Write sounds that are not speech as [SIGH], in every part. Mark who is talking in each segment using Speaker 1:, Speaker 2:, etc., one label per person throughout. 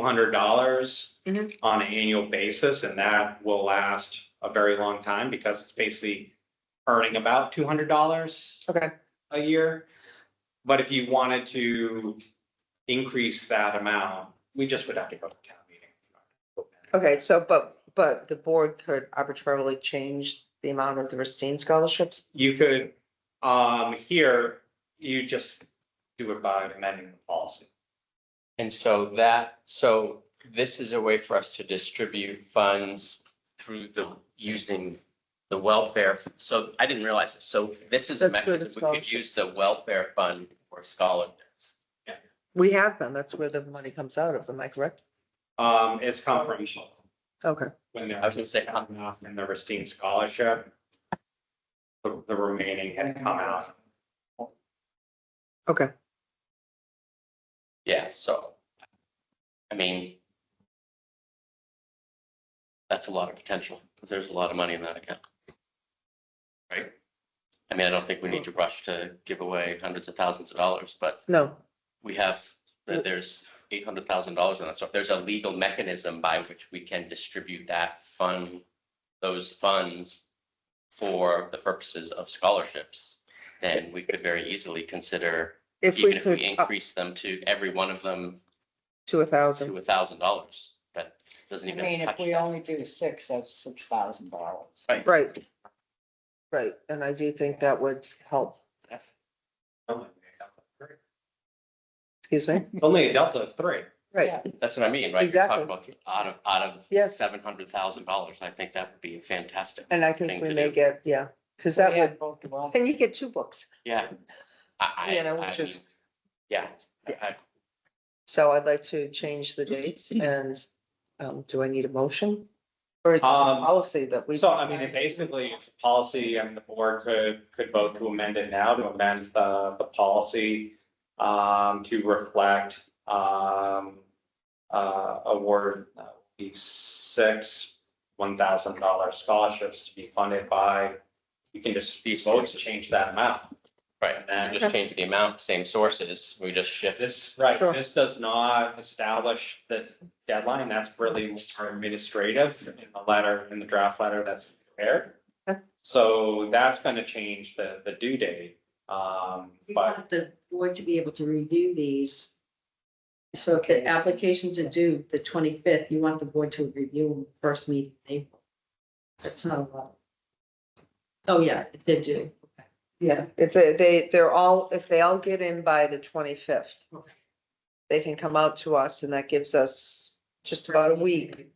Speaker 1: hundred dollars
Speaker 2: Mhm.
Speaker 1: on an annual basis, and that will last a very long time because it's basically earning about two hundred dollars
Speaker 2: Okay.
Speaker 1: a year. But if you wanted to increase that amount, we just would have to go to town meeting.
Speaker 2: Okay, so, but, but the board could arbitrarily change the amount of the Racine scholarships?
Speaker 1: You could, um, here, you just do it by amending the policy.
Speaker 3: And so that, so this is a way for us to distribute funds through the, using the welfare. So I didn't realize this. So this is a
Speaker 2: That's good,
Speaker 3: mechanism, we could
Speaker 2: scholarships.
Speaker 3: use the welfare fund for scholarships.
Speaker 2: We have them. That's where the money comes out of. Am I correct?
Speaker 1: Um, it's come from
Speaker 2: Okay.
Speaker 1: when they're.
Speaker 3: I was gonna say,
Speaker 1: come out in the Racine Scholarship. The, the remaining had come out.
Speaker 3: yeah, so, I mean, that's a lot of potential, because there's a lot of money in that account. Right? I mean, I don't think we need to rush to give away hundreds of thousands of dollars, but
Speaker 2: No,
Speaker 3: we have,
Speaker 2: Yeah.
Speaker 3: that there's eight hundred thousand dollars in that, so if there's a legal mechanism by which we can distribute that fund, those funds for the purposes of scholarships, then we could very easily consider,
Speaker 2: if
Speaker 3: even
Speaker 2: we
Speaker 3: if we
Speaker 2: could uh, up
Speaker 3: increase them to every one of them
Speaker 2: to a thousand.
Speaker 3: to a thousand dollars, that doesn't
Speaker 4: I
Speaker 3: even
Speaker 4: mean,
Speaker 3: touch
Speaker 4: if we only do six, that's six thousand dollars.
Speaker 3: Right.
Speaker 2: Right. Right, and I do think that would help.
Speaker 3: that.
Speaker 2: Excuse [LAUGHS] me?
Speaker 1: It's Only a delta of three.
Speaker 2: Right,
Speaker 4: Yeah.
Speaker 3: That's what I mean, right? You're
Speaker 2: Exactly.
Speaker 3: talking about Out of, out of
Speaker 2: Yes.
Speaker 3: seven hundred thousand dollars, I think that would be fantastic,
Speaker 2: and I
Speaker 3: Thing
Speaker 2: think we
Speaker 3: to
Speaker 2: may
Speaker 3: do.
Speaker 2: get, yeah, because that
Speaker 4: We
Speaker 2: would,
Speaker 4: had both of us.
Speaker 2: then you get two books.
Speaker 3: yeah. I, I.
Speaker 2: You know, which
Speaker 3: I
Speaker 2: is-
Speaker 3: mean, Yeah, I- I-
Speaker 2: So I'd like to change the [CLEARS THROAT] dates and um, do I need a motion? Or is it a
Speaker 1: Um,
Speaker 2: policy that we?
Speaker 1: So I mean, it basically, it's a policy and the board could, could vote to amend it now to amend the, the policy um, to reflect um, uh, award uh, these six one thousand dollar scholarships to be funded by, you can just
Speaker 3: These
Speaker 1: vote to
Speaker 3: sources.
Speaker 1: change that amount.
Speaker 3: Right,
Speaker 1: And
Speaker 3: we just change the amount, same sources, we just shift this.
Speaker 1: This, right,
Speaker 2: Sure.
Speaker 1: this does not establish the deadline, that's really more administrative in the letter, in the draft letter that's prepared.
Speaker 2: Okay.
Speaker 1: So that's gonna change the, the due date, um,
Speaker 5: We
Speaker 1: but,
Speaker 5: want the board to be able to review these. So if the applications are due the twenty-fifth, you want the board to review them first meeting in April. That's not a lot. Oh, yeah, if they're due.
Speaker 2: Yeah, if they, they, they're all, if they all get in by the twenty-fifth,
Speaker 5: Okay.
Speaker 2: they can come out to us and that gives us just about a week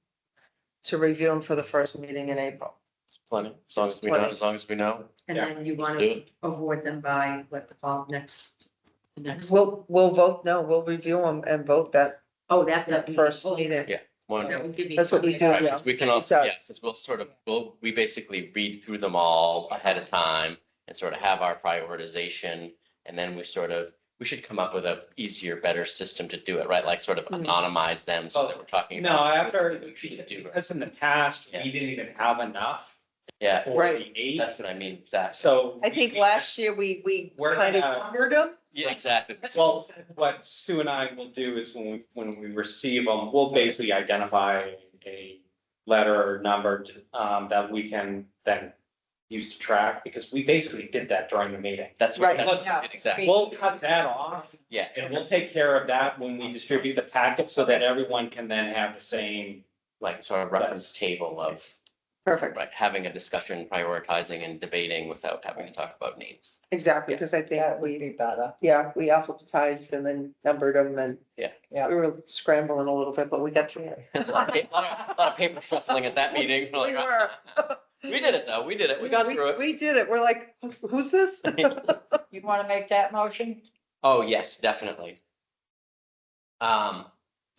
Speaker 2: to review them for the first meeting in April.
Speaker 3: It's Plenty, as long as we know,
Speaker 2: Plenty.
Speaker 3: as long as we know.
Speaker 5: And then you want
Speaker 3: do
Speaker 5: to award them by what the fall next, the next.
Speaker 2: We'll, we'll vote, no, we'll review them and vote that,
Speaker 5: Oh, that,
Speaker 2: that
Speaker 5: that.
Speaker 2: first
Speaker 5: oh,
Speaker 2: meeting.
Speaker 3: One,
Speaker 5: That would give me.
Speaker 2: That's what we do,
Speaker 3: right,
Speaker 2: yeah.
Speaker 3: 'cause we can also,
Speaker 2: So-
Speaker 3: yeah, because we'll sort of, we'll, we basically read through them all ahead of time and sort of have our prioritization. And then we sort of, we should come up with a easier, better system to do it, right? Like sort of
Speaker 2: Mm.
Speaker 3: anonymize them so that we're talking.
Speaker 1: no,
Speaker 3: about
Speaker 1: after,
Speaker 3: what we should do.
Speaker 1: because in the past, we
Speaker 3: Yeah.
Speaker 1: didn't even have enough
Speaker 3: Yeah,
Speaker 1: for the
Speaker 2: Right.
Speaker 1: eight,
Speaker 3: that's what I mean, exactly.
Speaker 1: so.
Speaker 2: I think last year we, we
Speaker 1: We're
Speaker 2: kind of
Speaker 1: gonna-
Speaker 2: covered them.
Speaker 3: Yeah, exactly.
Speaker 1: Well, what Sue and I will do is when we, when we receive them, we'll basically identify a letter or number um, that we can then use to track, because we basically did that during the meeting.
Speaker 3: That's what,
Speaker 2: Right,
Speaker 3: that's what we
Speaker 5: yeah.
Speaker 3: did, exactly.
Speaker 1: We'll cut that off
Speaker 3: Yeah,
Speaker 1: and we'll take care of that when we distribute the packet so that everyone can then have the same.
Speaker 3: like sort of reference table of
Speaker 2: Perfect,
Speaker 3: Right, having a discussion, prioritizing and debating without having to talk
Speaker 2: [LAUGHS]
Speaker 3: about names.
Speaker 2: exactly, because I think
Speaker 4: That would
Speaker 2: we,
Speaker 4: be better.
Speaker 2: yeah, we alphabetized and then numbered them and
Speaker 3: Yeah.
Speaker 4: Yeah.
Speaker 2: we were scrambling a little bit, but we got through it.
Speaker 3: A lot of pa- lot of lot of paper shuffling at that meeting. We're
Speaker 2: We
Speaker 3: like,
Speaker 2: were.
Speaker 3: [LAUGHS] We did it though, we did it, we got through it.
Speaker 2: We did it. We're like, who's this? [LAUGHS]
Speaker 4: You want to make that motion?
Speaker 3: Oh, yes, definitely. Um,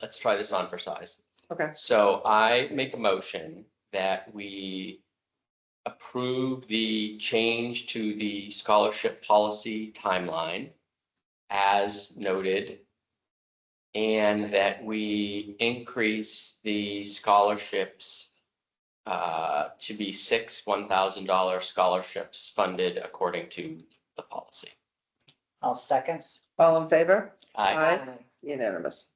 Speaker 3: let's try this on for size.
Speaker 2: Okay.
Speaker 3: So I make a motion that we approve the change to the scholarship policy timeline as noted. And that we increase the scholarships uh, to be six one thousand dollar scholarships funded according to the policy.
Speaker 4: I'll second.
Speaker 2: All in favor?
Speaker 3: I
Speaker 2: Aye. Unanimous.